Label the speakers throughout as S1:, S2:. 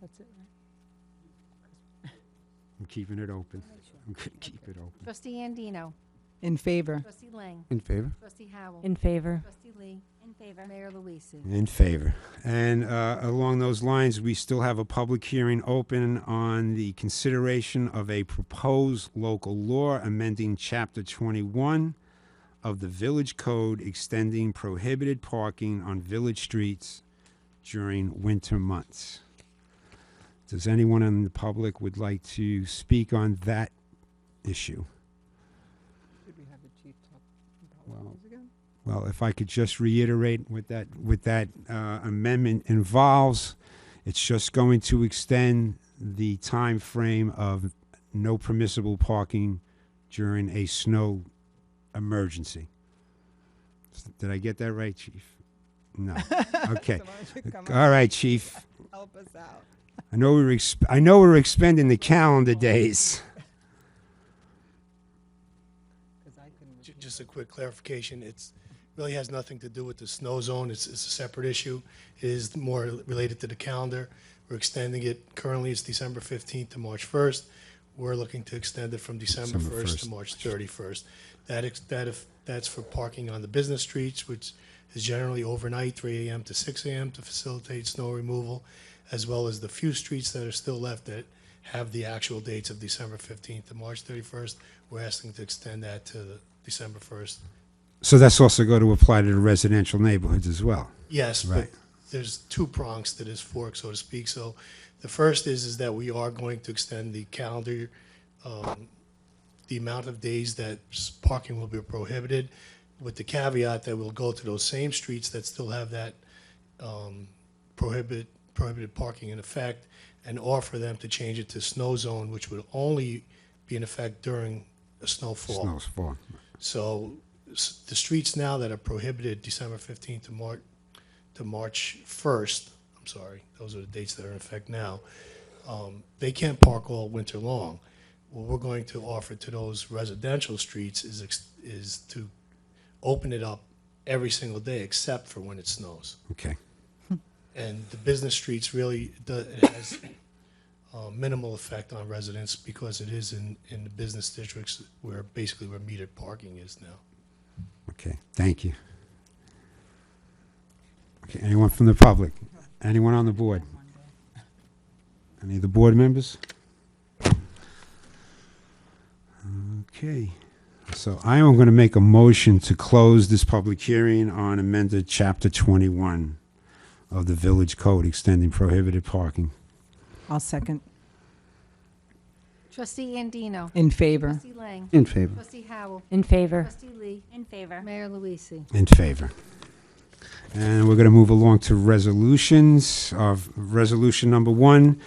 S1: That's it, right?
S2: I'm keeping it open. I'm gonna keep it open.
S3: Trustee Andino.
S4: In favor.
S3: Trustee Lang.
S2: In favor?
S3: Trustee Howell.
S1: In favor.
S3: Trustee Lee. In favor. Mayor Luise.
S2: In favor. And uh, along those lines, we still have a public hearing open on the consideration of a proposed local law amending Chapter 21 of the Village Code extending prohibited parking on village streets during winter months. Does anyone in the public would like to speak on that issue?
S4: Did we have the chief talk
S2: what it Well- was
S4: again?
S2: Well, if I could just reiterate what that, what that uh, amendment involves, it's just going to extend the time frame of no permissible parking during a snow emergency. S- Did I get that right, chief? No. Okay. All right, chief.
S4: Help us out.
S2: I know we were exp- I know we were expending the calendar days.
S4: Because I couldn't
S5: Ju- Just a quick clarification, it's, really has nothing to do with the snow zone, it's, it's a separate issue. It is more related to the calendar. We're extending it, currently it's December fifteenth to March first. We're looking to extend it from December
S2: December
S5: first
S2: 1st.
S5: to March thirty-first. That, ex- that if, that's for parking on the business streets, which is generally overnight, three AM to six AM to facilitate snow removal, as well as the few streets that are still left that have the actual dates of December fifteenth to March thirty-first. We're asking to extend that to the December first
S2: So that's also going to apply to the residential neighborhoods as well.
S5: Yes, but
S2: Right.
S5: there's two prongs to this fork, so to speak. So the first is, is that we are going to extend the calendar, um, the amount of days that s- parking will be prohibited, with the caveat that we'll go to those same streets that still have that um, prohibit, prohibited parking in effect, and offer them to change it to snow zone, which would only be in effect during a snowfall.
S2: Snow's fall.
S5: So s- the streets now that are prohibited December 15th to March, to March 1st, I'm sorry, those are the dates that are in effect now, um, they can't park all winter long. What we're going to offer to those residential streets is, ex- is to open it up every single day except for when it snows.
S2: Okay.
S5: And the business streets really, do- it has uh, minimal effect on residents because it is in, in the business districts where basically where metered parking is now.
S2: Okay, thank you. Okay, anyone from the public? Anyone on the board? Any of the board members? Okay, so I am going to make a motion to close this public hearing on amended Chapter 21 of the Village Code extending prohibited parking.
S4: I'll second.
S3: Trustee Andino.
S4: In favor.
S3: Trustee Lang.
S2: In favor.
S3: Trustee Howell.
S1: In favor.
S3: Trustee Lee.
S6: In favor.
S3: Mayor Luise.
S2: In favor. And we're going to move along to resolutions. Of resolution number one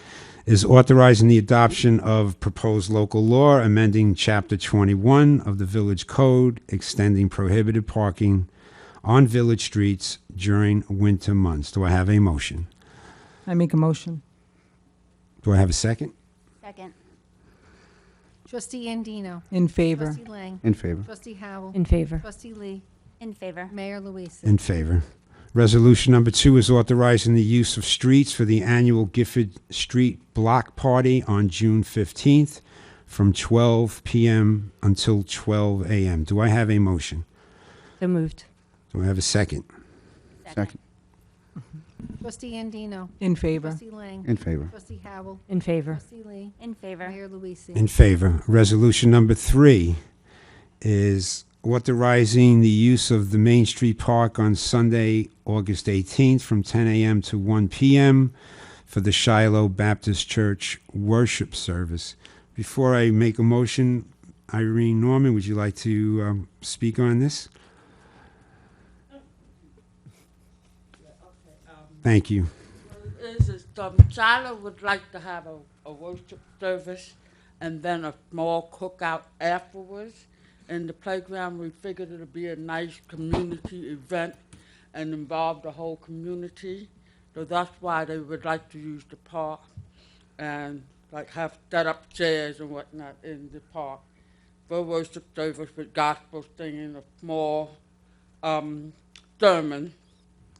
S2: is authorizing the adoption of proposed local law amending Chapter 21 of the Village Code, extending prohibited parking on village streets during winter months. Do I have a motion?
S4: I make a motion.
S2: Do I have a second?
S6: Second.
S3: Trustee Andino.
S4: In favor.
S3: Trustee Lang.
S2: In favor.
S3: Trustee Howell.
S1: In favor.
S3: Trustee Lee.
S6: In favor.
S3: Mayor Luise.
S2: In favor. Resolution number two is authorizing the use of streets for the annual Gifford Street Block Party on June 15th from 12 PM until 12 AM. Do I have a motion?
S1: So moved.
S2: Do I have a second?
S6: Second.
S3: Trustee Andino.
S4: In favor.
S3: Trustee Lang.
S7: In favor.
S3: Trustee Howell.
S1: In favor.
S3: Trustee Lee.
S6: In favor.
S3: Mayor Luise.
S2: In favor. Resolution number three is authorizing the use of the Main Street Park on Sunday, August 18th, from 10 a.m. to 1 p.m. for the Shiloh Baptist Church worship service. Before I make a motion, Irene Norman, would you like to um, speak on this? Thank you.
S8: is is um, Shiloh would like to have a, a worship service and then a small cookout afterwards. In the playground, we figured it would be a nice community event and involve the whole community. So that's why they would like to use the park and like have set up chairs and whatnot in the park for worship service with gospel singing, a small um, sermon